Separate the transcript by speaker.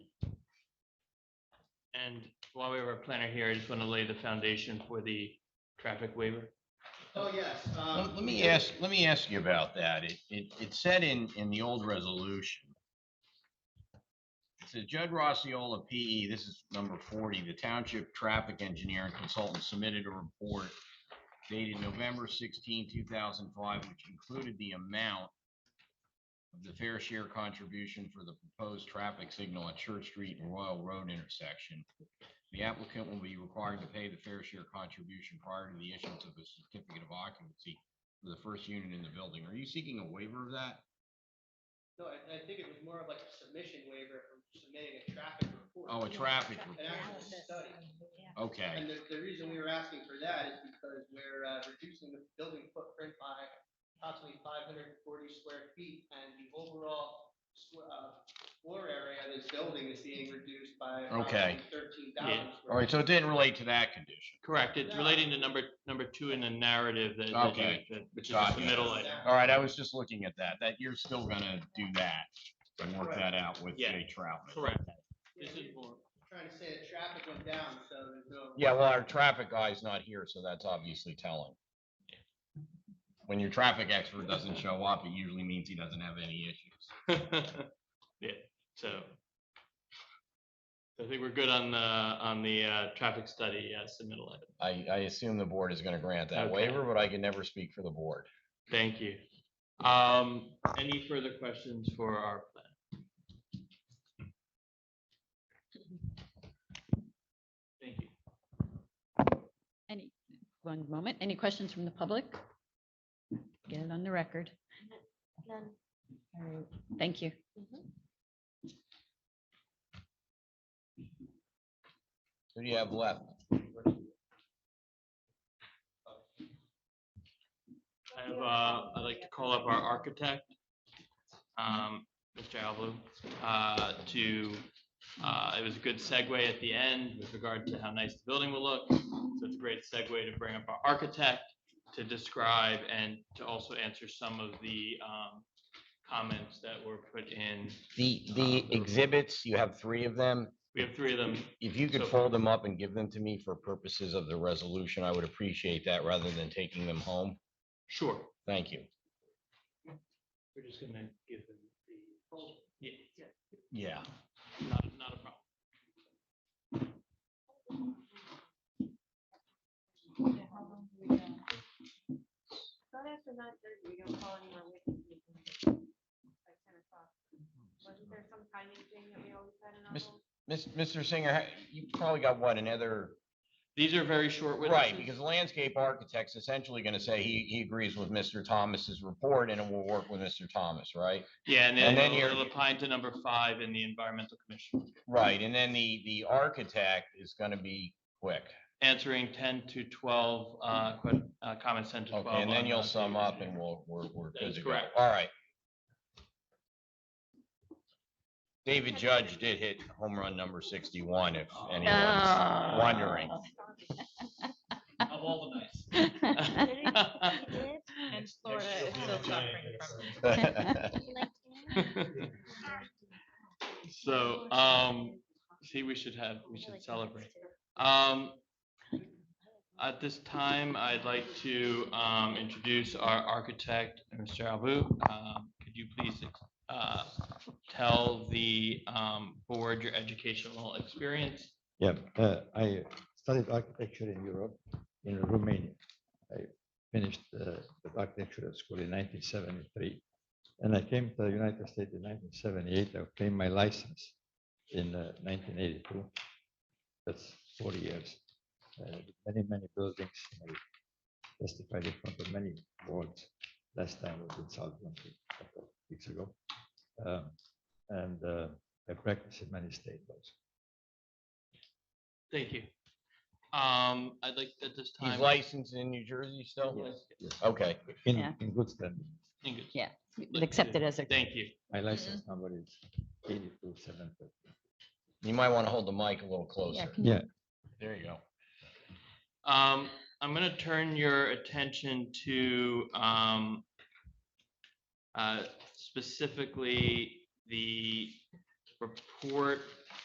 Speaker 1: And while we have our planner here, I just want to lay the foundation for the traffic waiver.
Speaker 2: Oh, yes.
Speaker 3: Let let me ask, let me ask you about that. It, it, it said in, in the old resolution. It says Judd Rossiola, PE, this is number forty, the township traffic engineer and consultant submitted a report dated November 16, thousand five, which included the amount of the fair share contribution for the proposed traffic signal at Church Street and Royal Road intersection. The applicant will be required to pay the fair share contribution prior to the issuance of a certificate of occupancy for the first unit in the building. Are you seeking a waiver of that?
Speaker 2: No, I, I think it was more of like a submission waiver from submitting a traffic report.
Speaker 3: Oh, a traffic
Speaker 2: An
Speaker 3: report.
Speaker 2: actual study.
Speaker 3: Okay,
Speaker 2: And the, the reason we were asking for that is because we're, uh, reducing the building footprint by approximately five hundred and forty square feet. And the overall, squ- uh, floor area of this building is being reduced by
Speaker 3: Okay.
Speaker 2: thirteen thousand.
Speaker 3: all right, so it didn't relate to that condition.
Speaker 1: Correct. It's relating to number, number two in the narrative that, that you-
Speaker 3: Okay.
Speaker 1: that- which is
Speaker 3: Got
Speaker 1: the
Speaker 3: you.
Speaker 1: middle item.
Speaker 3: All right, I was just looking at that, that you're still gonna do that and work that out with
Speaker 1: Yeah.
Speaker 3: Jay Troutman.
Speaker 1: Correct. This is more,
Speaker 2: Trying to say that traffic went down, so there's no.
Speaker 3: Yeah, well, our traffic guy's not here, so that's obviously telling. When your traffic expert doesn't show up, it usually means he doesn't have any issues.
Speaker 1: yeah, so. I think we're good on the, on the, uh, traffic study, yes, the middle item.
Speaker 3: I, I assume the board is gonna grant that
Speaker 1: Okay.
Speaker 3: waiver, but I can never speak for the board.
Speaker 1: Thank you. Um, any further questions for our plan? Thank you.
Speaker 4: Any, one moment, any questions from the public? Get it on the record.
Speaker 5: None.
Speaker 4: All right, Thank you.
Speaker 3: Who do you have left?
Speaker 1: I have, uh, I'd like to call up our architect, um, Mr. Alblue, uh, to, uh, it was a good segue at the end with regard to how nice the building will look. So it's a great segue to bring up our architect to describe and to also answer some of the, um, comments that were put in.
Speaker 3: The,
Speaker 1: the
Speaker 3: exhibits, you have three of them.
Speaker 1: We have three of them.
Speaker 3: If you
Speaker 1: So-
Speaker 3: could fold them up and give them to me for purposes of the resolution, I would appreciate that rather than taking them home.
Speaker 1: Sure.
Speaker 3: Thank you.
Speaker 1: We're just gonna give them the. Yeah,
Speaker 3: Yeah.
Speaker 1: not, not a problem.
Speaker 5: Not after nine thirty, we don't call any more witnesses. Like ten o'clock. Wasn't there some timing thing that we always had in our
Speaker 3: Miss-
Speaker 5: rules?
Speaker 3: Mr. Singer, ha- you probably got what, another
Speaker 1: These are very short witnesses.
Speaker 3: Right, because the landscape architect's essentially gonna say he, he agrees with Mr. Thomas's report and it will work with Mr. Thomas, right?
Speaker 1: Yeah, and then
Speaker 3: And then
Speaker 1: it'll-
Speaker 3: you're-
Speaker 1: it'll apply to number five in the environmental commission,
Speaker 3: Right, and then the, the architect is gonna be quick.
Speaker 1: answering ten to twelve, uh, que- uh, comments ten to twelve.
Speaker 3: Okay, and then
Speaker 1: on, uh,
Speaker 3: you'll sum
Speaker 1: figures.
Speaker 3: up and we'll, we're, we're
Speaker 1: That
Speaker 3: good
Speaker 1: is
Speaker 3: to go.
Speaker 1: correct.
Speaker 3: All right. David Judge did hit home run number sixty-one, if anyone's wondering.
Speaker 1: Of all the nights.
Speaker 5: He did?
Speaker 6: And Florida is still suffering from.
Speaker 5: He liked it?
Speaker 1: So, um, see, we should have, we should celebrate. Um, at this time, I'd like to, um, introduce our architect, Mr. Albu. Um, could you please, uh, tell the, um, board your educational experience?
Speaker 7: Yeah, uh, I studied architecture in Europe, in Romania. I finished uh, the architecture school in 1973. And I came to the United States in 1978. I obtained my license in uh, 1982. That's 40 years. Uh, Many, many buildings. I Testified in front of many boards. Last time was in South London, a couple of weeks ago. Um, And uh, I practiced in many states also.
Speaker 1: Thank you. Um, I'd like at this time.
Speaker 3: He's licensed in New Jersey still?
Speaker 1: Yes,
Speaker 3: Okay,
Speaker 7: In
Speaker 4: Yeah.
Speaker 7: in good standing.
Speaker 1: thank you.
Speaker 4: Yeah, accepted as a.
Speaker 1: Thank you.
Speaker 7: My license number is eighty-two seven thirty.
Speaker 3: you might want to hold the mic a little
Speaker 4: Yeah,
Speaker 3: closer.
Speaker 4: can-
Speaker 7: Yeah.
Speaker 3: There you go.
Speaker 1: Um, I'm gonna turn your attention to, um, uh, specifically the report